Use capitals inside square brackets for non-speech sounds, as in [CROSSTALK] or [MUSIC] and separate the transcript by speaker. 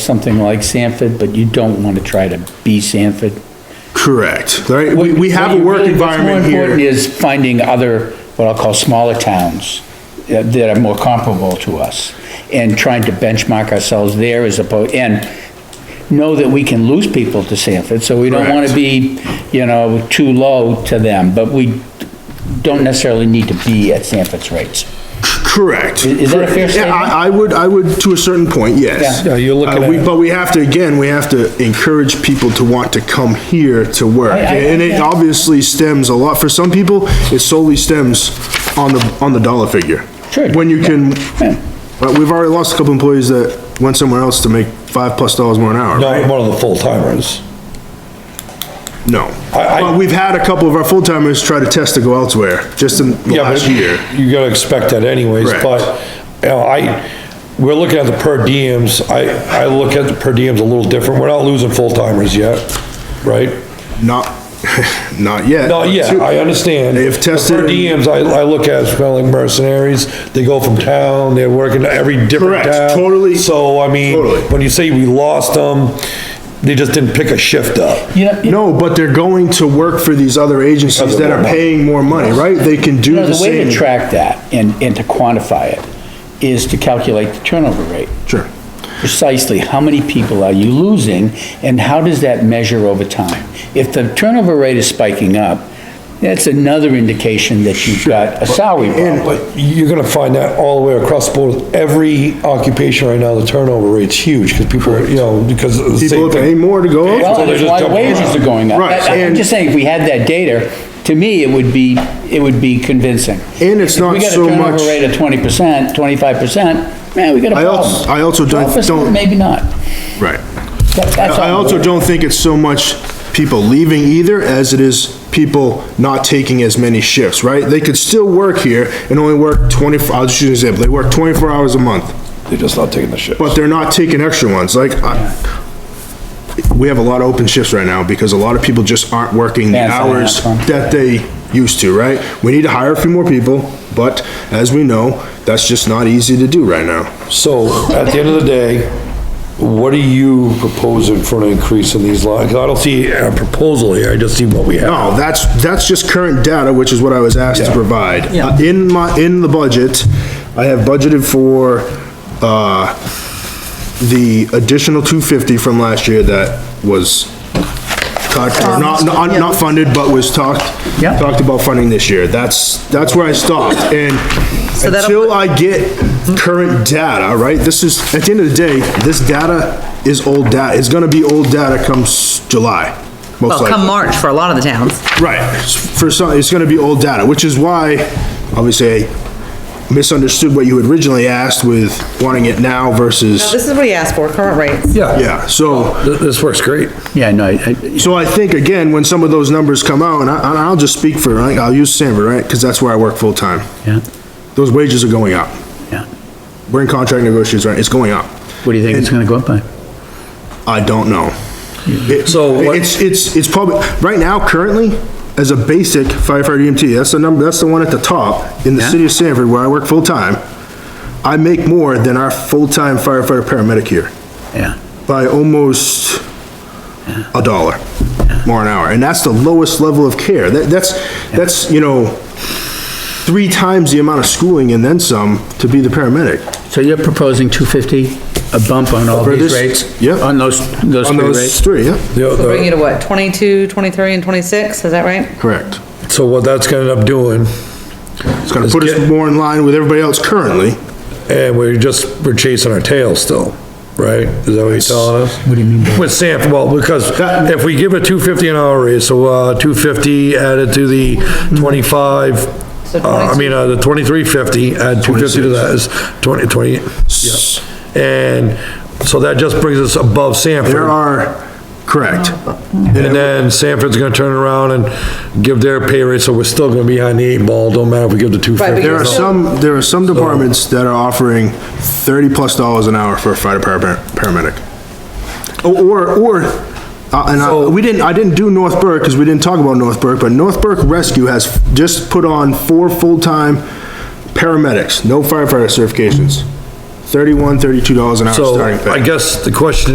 Speaker 1: something like Sanford, but you don't want to try to be Sanford.
Speaker 2: Correct, right? We, we have a work
Speaker 1: Really, what's
Speaker 2: environment
Speaker 1: More important
Speaker 2: here.
Speaker 1: is finding other, what I'll call smaller towns uh, that are more comparable to us and trying to benchmark ourselves there as opposed, and know that we can lose people to Sanford, so we don't want to
Speaker 2: Correct.
Speaker 1: be, you know, too low to them, but we don't necessarily need to be at Sanford's rates.
Speaker 2: Correct.
Speaker 1: Is- is that a fair
Speaker 2: correct. Yeah,
Speaker 1: statement?
Speaker 2: I, I would, I would, to a certain point, yes.
Speaker 1: Yeah.
Speaker 3: Yeah, you're looking
Speaker 2: Uh, we-
Speaker 3: at-
Speaker 2: But we have to, again, we have to encourage people to want to come here to work.
Speaker 1: I- I-
Speaker 2: And it
Speaker 1: yeah.
Speaker 2: obviously stems a lot, for some people, it solely stems on the, on the dollar figure.
Speaker 1: Sure.
Speaker 2: When you can,
Speaker 1: Yeah.
Speaker 2: but we've already lost a couple employees that went somewhere else to make five plus dollars more an hour.
Speaker 3: Not one of the full timers.
Speaker 2: No.
Speaker 3: I- I-
Speaker 2: But we've had a couple of our full-timers try to test to go elsewhere, just in the
Speaker 3: Yeah, but
Speaker 2: last year.
Speaker 3: You gotta expect that anyways,
Speaker 2: Correct.
Speaker 3: but, you know, I, we're looking at the per diems, I, I look at the per diems a little different, we're not losing full timers yet, right?
Speaker 2: Not, [LAUGHS] not yet.
Speaker 3: No, yeah, I understand.
Speaker 2: They've tested
Speaker 3: The per
Speaker 2: and-
Speaker 3: diems, I, I look at as kind of like mercenaries, they go from town, they're working every different
Speaker 2: Correct,
Speaker 3: town.
Speaker 2: totally,
Speaker 3: So, I mean,
Speaker 2: totally.
Speaker 3: when you say we lost them, they just didn't pick a shift up.
Speaker 1: You know, you
Speaker 2: No, but they're going to work for these other agencies that are paying more money, right? They can do
Speaker 1: know,
Speaker 2: the
Speaker 1: the way
Speaker 2: same.
Speaker 1: to track that and, and to quantify it is to calculate the turnover rate.
Speaker 2: Sure.
Speaker 1: precisely how many people are you losing and how does that measure over time? If the turnover rate is spiking up, that's another indication that you've got a salary problem.
Speaker 3: But you're gonna find that all the way across the board, every occupation right now, the turnover rate's huge, because people, are, you know, because of the
Speaker 2: People
Speaker 3: same
Speaker 2: are paying
Speaker 3: thing.
Speaker 2: more to go
Speaker 1: Well,
Speaker 2: elsewhere.
Speaker 3: so
Speaker 1: and
Speaker 3: they
Speaker 1: that's
Speaker 3: just
Speaker 1: why
Speaker 3: jump
Speaker 1: wages
Speaker 3: around.
Speaker 1: are going up.
Speaker 2: Right,
Speaker 1: I- I'm
Speaker 2: and-
Speaker 1: just saying, if we had that data, to me, it would be, it would be convincing.
Speaker 2: And it's
Speaker 1: If
Speaker 2: not so
Speaker 1: We got a
Speaker 2: much-
Speaker 1: turnover rate of twenty percent, twenty-five percent, man, we got a
Speaker 2: I also-
Speaker 1: problem.
Speaker 2: I also don't-
Speaker 1: 12%,
Speaker 2: don't-
Speaker 1: Maybe not.
Speaker 2: Right.
Speaker 1: That- that's
Speaker 2: I
Speaker 1: all.
Speaker 2: also don't think it's so much people leaving either as it is people not taking as many shifts, right? They could still work here and only work 24, I'll just use an example, they work 24 hours a month,
Speaker 3: They're just not taking the shift.
Speaker 2: but they're not taking extra ones, like, I, we have a lot of open shifts right now because a lot of people just aren't working the
Speaker 1: Yeah, it's not
Speaker 2: hours
Speaker 1: enough, huh?
Speaker 2: that they used to, right? We need to hire a few more people, but as we know, that's just not easy to do right now.
Speaker 3: So, at the end of the day, what are you proposing for an increase in these lines? 'Cause I don't see a proposal here, I just see what we have.
Speaker 2: No, that's, that's just current data, which is what I was asked to
Speaker 3: Yeah.
Speaker 2: provide.
Speaker 1: Yeah.
Speaker 2: Uh, In my, in the budget, I have budgeted for, uh, the additional two fifty from last year that was talked, or not, not, not funded, but was talked,
Speaker 1: Yeah.
Speaker 2: talked about funding this year. That's, that's where I stopped, and
Speaker 4: that'll
Speaker 2: until I get current data, right, this is, at the end of the day, this data is old data, it's gonna be old data comes July, most
Speaker 4: Well,
Speaker 2: likely.
Speaker 4: come March for a lot of the towns.
Speaker 2: Right, for some, it's gonna be old data, which is why, obviously, I misunderstood what you had originally asked with wanting it now versus,
Speaker 4: This is what he asked for, current rates.
Speaker 3: Yeah,
Speaker 2: yeah, so,
Speaker 3: Th- this works great.
Speaker 1: Yeah, no, I- I-
Speaker 2: so I think, again, when some of those numbers come out, and I, and I'll just speak for, like, I'll use Sanford, right, because that's where I work full-time,
Speaker 1: yeah,
Speaker 2: those wages are going up.
Speaker 1: yeah.
Speaker 2: We're in contract negotiations, right, it's going up.
Speaker 1: What do you think it's gonna go up by?
Speaker 2: I don't know. It-
Speaker 3: So what-
Speaker 2: It's, it's, it's probably, right now, currently, as a basic firefighter EMT, that's the number, that's the one at the top, in the
Speaker 1: Yeah.
Speaker 2: city of Sanford, where I work full-time, I make more than our full-time firefighter paramedic here,
Speaker 1: Yeah.
Speaker 2: by almost a dollar more an hour, and that's the lowest level of care, that, that's, that's, you know, three times the amount of schooling and then some to be the paramedic.
Speaker 1: So you're proposing 250, a bump on all
Speaker 2: For
Speaker 1: these
Speaker 2: this-
Speaker 1: rates?
Speaker 2: yep.
Speaker 1: On those, those
Speaker 2: On
Speaker 1: three
Speaker 2: those
Speaker 1: rates?
Speaker 2: three, yeah,
Speaker 3: The-
Speaker 4: So Bring you
Speaker 3: the-
Speaker 4: to what, 22, 23, and 26, is that right?
Speaker 2: correct.
Speaker 3: So what that's gonna end up doing,
Speaker 2: It's gonna
Speaker 3: Let's
Speaker 2: put us
Speaker 3: get-
Speaker 2: more in line with everybody else currently.
Speaker 3: and we're just, we're chasing our tail still, right? Is that what you're telling us? What do you mean? With Sanford, well, because if we give a two fifty an hour raise, so, uh, two fifty added to the twenty-five,
Speaker 4: So
Speaker 3: uh, I mean, uh, the twenty-three fifty, add two fifty to that is twenty, twenty, and so that just brings us above
Speaker 2: There
Speaker 3: Sanford.
Speaker 2: are, correct.
Speaker 3: And then Sanford's gonna turn around and give their pay rate, so we're still gonna be behind the eight ball, don't matter if we give the two
Speaker 4: but
Speaker 3: fifty.
Speaker 2: There are
Speaker 4: you're still-
Speaker 2: some, there are some departments that are offering thirty-plus dollars an hour for a fighter para- paramedic. Or, or, uh, and I, we didn't, I didn't do North Burke, because we didn't talk about North Burke, but North Burke Rescue has just put on four full-time paramedics, no firefighter certifications. Thirty-one, thirty-two dollars an hour
Speaker 3: So
Speaker 2: starting pay.
Speaker 3: I guess the question